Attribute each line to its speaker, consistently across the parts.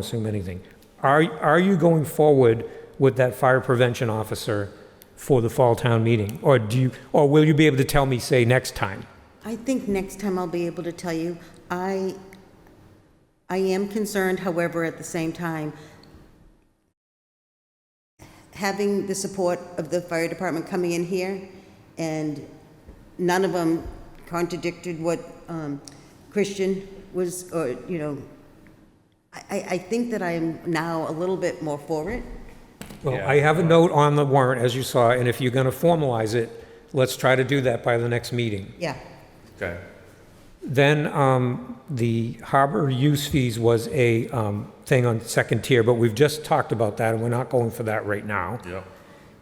Speaker 1: assume anything. Are, are you going forward with that fire prevention officer for the fall town meeting? Or do you, or will you be able to tell me, say, next time?
Speaker 2: I think next time I'll be able to tell you. I, I am concerned, however, at the same time, having the support of the fire department coming in here, and none of them contradicted what um, Christian was, or, you know, I, I- I think that I am now a little bit more for it.
Speaker 1: Well, I have a note on the warrant, as you saw, and if you're going to formalize it, let's try to do that by the next meeting.
Speaker 2: Yeah,
Speaker 3: Okay,
Speaker 1: Then, um, the harbor use fees was a, um, thing on second tier, but we've just talked about that, and we're not going for that right now.
Speaker 3: yep,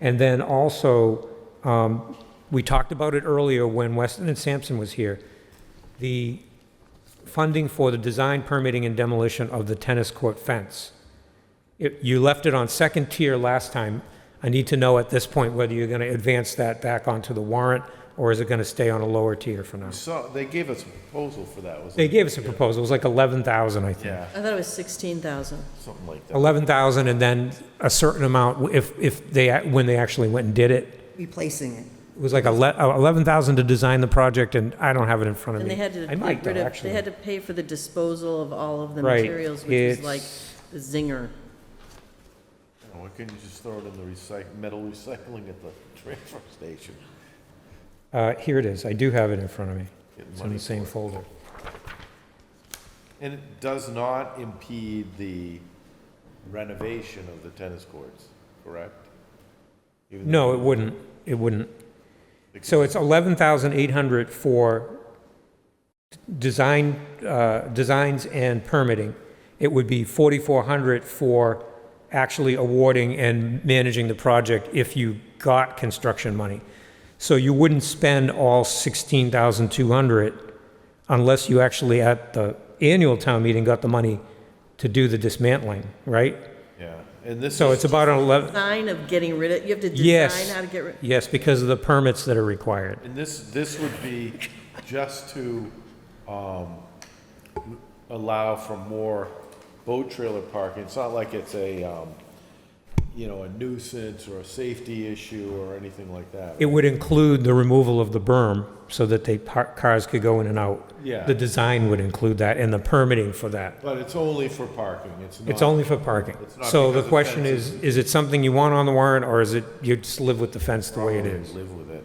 Speaker 1: And then also, um, we talked about it earlier when Weston and Sampson was here, the funding for the design permitting and demolition of the tennis court fence. It- You left it on second tier last time. I need to know at this point whether you're going to advance that back onto the warrant, or is it going to stay on a lower tier for now?
Speaker 3: so they gave us a proposal for that, was
Speaker 1: They
Speaker 3: it?
Speaker 1: gave us a proposal, it was like 11,000, I think.
Speaker 3: Yeah,
Speaker 4: I thought it was 16,000.
Speaker 3: something like that.
Speaker 1: 11,000 and then a certain amount if, if they, when they actually went and did it.
Speaker 2: replacing it.
Speaker 1: It was like ele- uh, 11,000 to design the project, and I don't have it in front of me.
Speaker 4: And they had to
Speaker 1: I might
Speaker 4: get rid
Speaker 1: though,
Speaker 4: of,
Speaker 1: actually.
Speaker 4: they had to pay for the disposal of all of the
Speaker 1: Right,
Speaker 4: materials, which is
Speaker 1: it's-
Speaker 4: like the zinger.
Speaker 3: Why couldn't you just throw it in the recyc, metal recycling at the transfer station?
Speaker 1: Uh, Here it is, I do have it in front of me.
Speaker 3: Get
Speaker 1: It's in
Speaker 3: money
Speaker 1: the same
Speaker 3: for it.
Speaker 1: folder.
Speaker 3: And it does not impede the renovation of the tennis courts, correct? Even
Speaker 1: No,
Speaker 3: though-
Speaker 1: it wouldn't, it wouldn't. So it's 11,800 for design, uh, designs and permitting. It would be 4,400 for actually awarding and managing the project if you got construction money. So you wouldn't spend all 16,200 unless you actually at the annual town meeting got the money to do the dismantling, right?
Speaker 3: Yeah, and this
Speaker 1: So
Speaker 3: is,
Speaker 1: it's about an 11,
Speaker 4: Sign of getting rid of, you have to
Speaker 1: Yes.
Speaker 4: design how to get rid.
Speaker 1: yes, because of the permits that are required.
Speaker 3: and this, this would be just to, um, allow for more boat trailer parking. It's not like it's a, um, you know, a nuisance or a safety issue or anything like that.
Speaker 1: It would include the removal of the berm so that they, par- cars could go in and out.
Speaker 3: Yeah.
Speaker 1: The design would include that and the permitting for that.
Speaker 3: But it's only for parking, it's not.
Speaker 1: It's only for parking.
Speaker 3: It's not
Speaker 1: So the
Speaker 3: because of
Speaker 1: question is,
Speaker 3: fences.
Speaker 1: is it something you want on the warrant or is it, you just live with the fence the way it is?
Speaker 3: Live with it.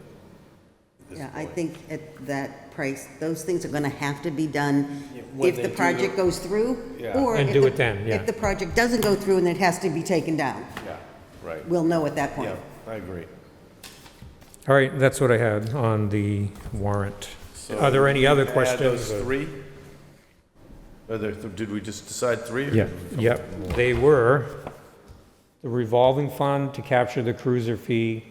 Speaker 2: Yeah, I think at that price, those things are going to have to be done
Speaker 3: when
Speaker 2: if
Speaker 3: they
Speaker 2: the
Speaker 3: do
Speaker 2: project
Speaker 3: the-
Speaker 2: goes through.
Speaker 3: Yeah.
Speaker 2: or
Speaker 1: And
Speaker 2: if
Speaker 1: do
Speaker 2: the-
Speaker 1: it then, yeah.
Speaker 2: If the project doesn't go through and it has to be taken down,
Speaker 3: Yeah, right,
Speaker 2: we'll know at that
Speaker 3: yeah,
Speaker 2: point.
Speaker 3: I agree.
Speaker 1: All right, that's what I had on the warrant. Are there any other questions?
Speaker 3: Add those three? Are there, did we just decide three? or
Speaker 1: Yeah,
Speaker 3: did we come
Speaker 1: yep.
Speaker 3: up with
Speaker 1: They were the revolving fund to capture the cruiser fee.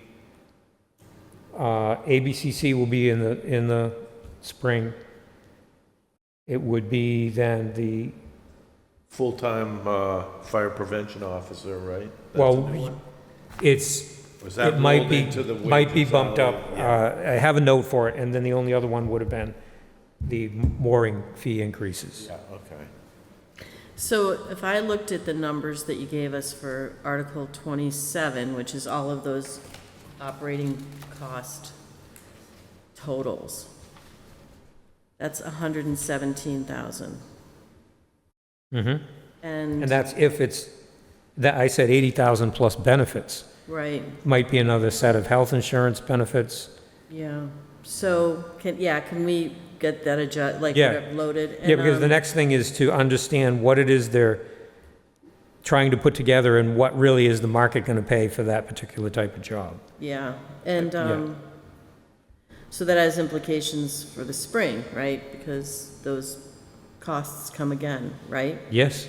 Speaker 1: Uh, ABCC will be in the, in the spring. It would be then the,
Speaker 3: Full-time, uh, fire prevention officer, right? That's a new one?
Speaker 1: well, it's,
Speaker 3: Was that
Speaker 1: it might
Speaker 3: rolled
Speaker 1: be,
Speaker 3: into the
Speaker 1: might be
Speaker 3: wages
Speaker 1: bumped up.
Speaker 3: already?
Speaker 1: Uh, I have a note for it, and then the only other one would have been the mooring fee increases.
Speaker 3: Yeah, okay.
Speaker 4: So if I looked at the numbers that you gave us for Article 27, which is all of those operating cost totals, that's 117,000.
Speaker 1: Mhm. And
Speaker 4: And,
Speaker 1: that's if it's, that, I said 80,000 plus benefits.
Speaker 4: right,
Speaker 1: might be another set of health insurance benefits.
Speaker 4: yeah. So, can, yeah, can we get that adjust, like,
Speaker 1: Yeah.
Speaker 4: get it loaded?
Speaker 1: Yeah, because the
Speaker 4: And, um,
Speaker 1: next thing is to understand what it is they're trying to put together and what really is the market going to pay for that particular type of job.
Speaker 4: Yeah, and,
Speaker 1: Yeah.
Speaker 4: um, so that has implications for the spring, right? Because those costs come again, right?
Speaker 1: Yes?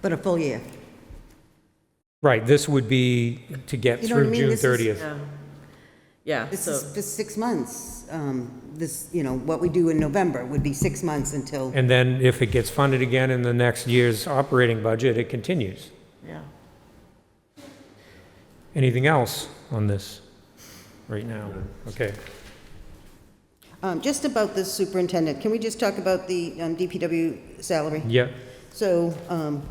Speaker 2: But a full year.
Speaker 1: Right, this would be to get
Speaker 2: You know what I
Speaker 1: through
Speaker 2: mean?
Speaker 1: June
Speaker 2: This is-
Speaker 1: 30th.
Speaker 4: Yeah. Yeah,
Speaker 2: This
Speaker 4: so,
Speaker 2: is for six months. um, This, you know, what we do in November would be six months until,
Speaker 1: And then if it gets funded again in the next year's operating budget, it continues.
Speaker 4: yeah.
Speaker 1: Anything else on this right now? Okay.
Speaker 2: Um, just about the superintendent, can we just talk about the um, DPW salary?
Speaker 1: Yeah,
Speaker 2: So um,